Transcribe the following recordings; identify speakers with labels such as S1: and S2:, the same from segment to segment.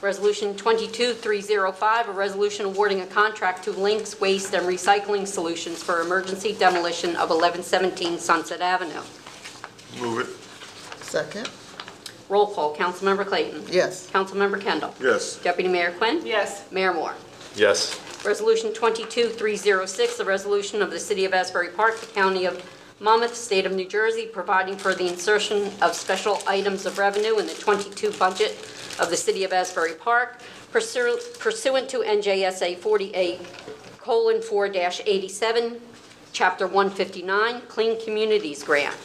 S1: Resolution 22305, a resolution awarding a contract to Links Waste and Recycling Solutions for emergency demolition of 1117 Sunset Avenue.
S2: Move it.
S3: Second,
S1: Roll call, Councilmember Clayton.
S3: yes.
S1: Councilmember Kendall.
S2: Yes.
S1: Deputy Mayor Quinn.
S4: yes,
S1: Mayor Moore.
S5: yes,
S1: Resolution 22306, a resolution of the City of Asbury Park, the County of Monmouth, State of New Jersey, providing for the insertion of special items of revenue in the 22 budget of the City of Asbury Park pursu- pursuant to NJSA 48:4-87, Chapter 159, Clean Communities Grant.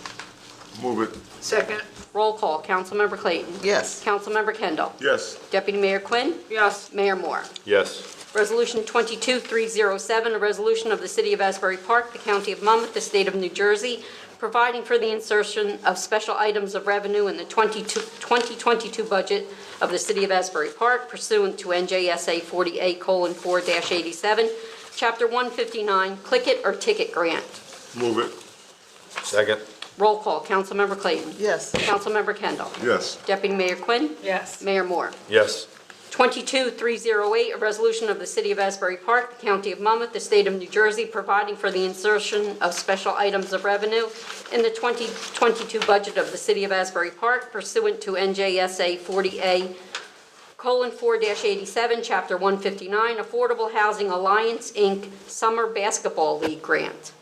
S2: Move it.
S4: second,
S1: Roll call, Councilmember Clayton.
S3: Yes.
S1: Councilmember Kendall.
S2: Yes.
S1: Deputy Mayor Quinn.
S4: yes,
S1: Mayor Moore.
S5: yes,
S1: Resolution 22307, a resolution of the City of Asbury Park, the County of Monmouth, the State of New Jersey, providing for the insertion of special items of revenue in the 22 2022 budget of the City of Asbury Park pursuant to NJSA 48:4-87, Chapter 159, Click It or Ticket Grant.
S2: Move it.
S5: second,
S1: Roll call, Councilmember Clayton.
S3: Yes.
S1: Councilmember Kendall.
S2: Yes.
S1: Deputy Mayor Quinn.
S4: yes,
S1: Mayor Moore.
S5: yes,
S1: 22308, a resolution of the City of Asbury Park, the County of Monmouth, the State of New Jersey, providing for the insertion of special items of revenue in the 2022 budget of the City of Asbury Park pursuant to NJSA 40A:4-87, Chapter 159, Affordable Housing Alliance, Inc., Summer Basketball League Grant.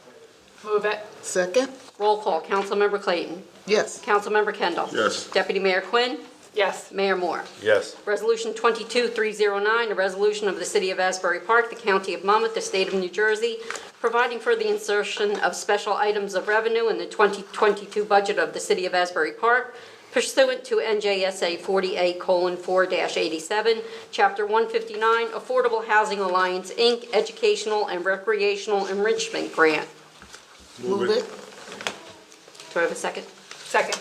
S4: move it,
S3: Second,
S1: Roll call, Councilmember Clayton.
S3: yes.
S1: Councilmember Kendall.
S2: Yes.
S1: Deputy Mayor Quinn.
S4: yes,
S1: Mayor Moore.
S5: yes,
S1: Resolution 22309, a resolution of the City of Asbury Park, the County of Monmouth, the State of New Jersey, providing for the insertion of special items of revenue in the 2022 budget of the City of Asbury Park pursuant to NJSA 48:4-87, Chapter 159, Affordable Housing Alliance, Inc., Educational and Recreational Enrichment Grant.
S3: Move it,
S1: Do I have a second?
S4: second,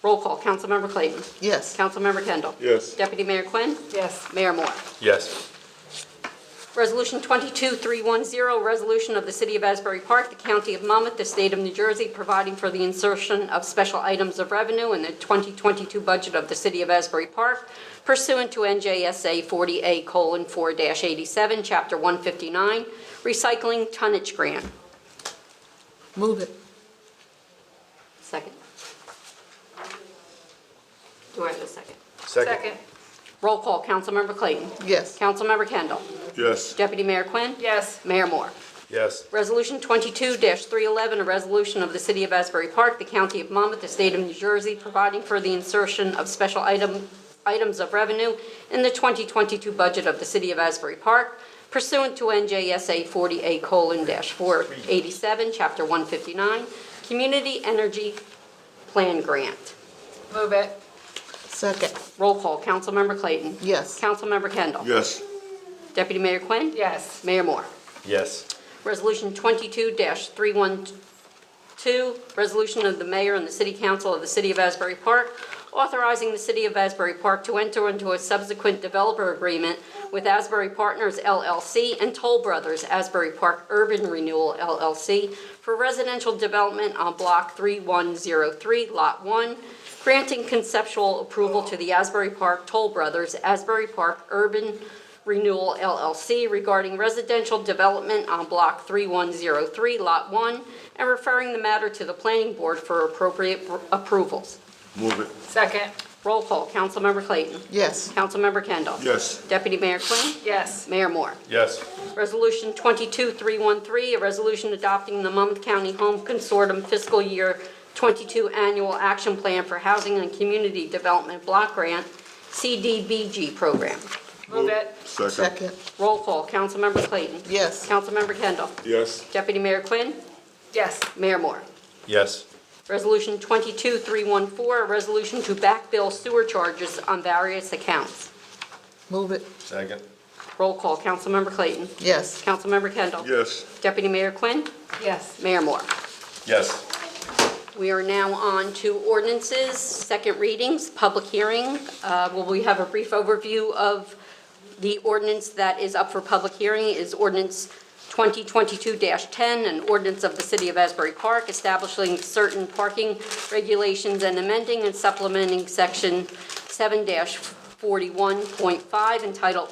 S1: Roll call, Councilmember Clayton.
S3: yes.
S1: Councilmember Kendall.
S2: Yes.
S1: Deputy Mayor Quinn.
S4: yes,
S1: Mayor Moore.
S5: yes,
S1: Resolution 22310, resolution of the City of Asbury Park, the County of Monmouth, the State of New Jersey, providing for the insertion of special items of revenue in the 2022 budget of the City of Asbury Park pursuant to NJSA 48:4-87, Chapter 159, Recycling Tonnage Grant.
S3: Move it,
S1: Second. Do I have a second?
S5: second,
S4: second,
S1: Roll call, Councilmember Clayton.
S3: yes.
S1: Councilmember Kendall.
S2: Yes.
S1: Deputy Mayor Quinn.
S4: yes,
S1: Mayor Moore.
S5: yes,
S1: Resolution 22-311, a resolution of the City of Asbury Park, the County of Monmouth, the State of New Jersey, providing for the insertion of special item- items of revenue in the 2022 budget of the City of Asbury Park pursuant to NJSA 48:487, Chapter 159, Community Energy Plan Grant.
S4: move it,
S3: Second,
S1: Roll call, Councilmember Clayton.
S3: yes.
S1: Councilmember Kendall.
S2: Yes.
S1: Deputy Mayor Quinn.
S4: yes,
S1: Mayor Moore.
S5: yes,
S1: Resolution 22-312, resolution of the mayor and the city council of the city of Asbury Park authorizing the city of Asbury Park to enter into a subsequent developer agreement with Asbury Partners LLC and Toll Brothers Asbury Park Urban Renewal LLC for residential development on Block 3103, Lot 1, granting conceptual approval to the Asbury Park Toll Brothers Asbury Park Urban Renewal LLC regarding residential development on Block 3103, Lot 1, and referring the matter to the planning board for appropriate approvals.
S2: Move it.
S4: second,
S1: Roll call, Councilmember Clayton.
S3: Yes.
S1: Councilmember Kendall.
S2: Yes.
S1: Deputy Mayor Quinn.
S4: yes,
S1: Mayor Moore.
S5: yes,
S1: Resolution 22313, a resolution adopting the Monmouth County Home Consortium Fiscal Year 22 Annual Action Plan for Housing and Community Development Block Grant, CDBG program.
S4: move it,
S2: Second.
S3: Second,
S1: Roll call, Councilmember Clayton.
S3: yes.
S1: Councilmember Kendall.
S2: Yes.
S1: Deputy Mayor Quinn.
S4: yes,
S1: Mayor Moore.
S5: yes,
S1: Resolution 22314, a resolution to backbill sewer charges on various accounts.
S3: Move it,
S5: second,
S1: Roll call, Councilmember Clayton.
S3: yes.
S1: Councilmember Kendall.
S2: Yes.
S1: Deputy Mayor Quinn.
S4: yes,
S1: Mayor Moore.
S5: yes,
S1: We are now on to ordinances, second readings, public hearing. Uh, Will we have a brief overview of the ordinance that is up for public hearing is ordinance 2022-10, an ordinance of the City of Asbury Park establishing certain parking regulations and amending and supplementing Section 7-4 41.5 entitled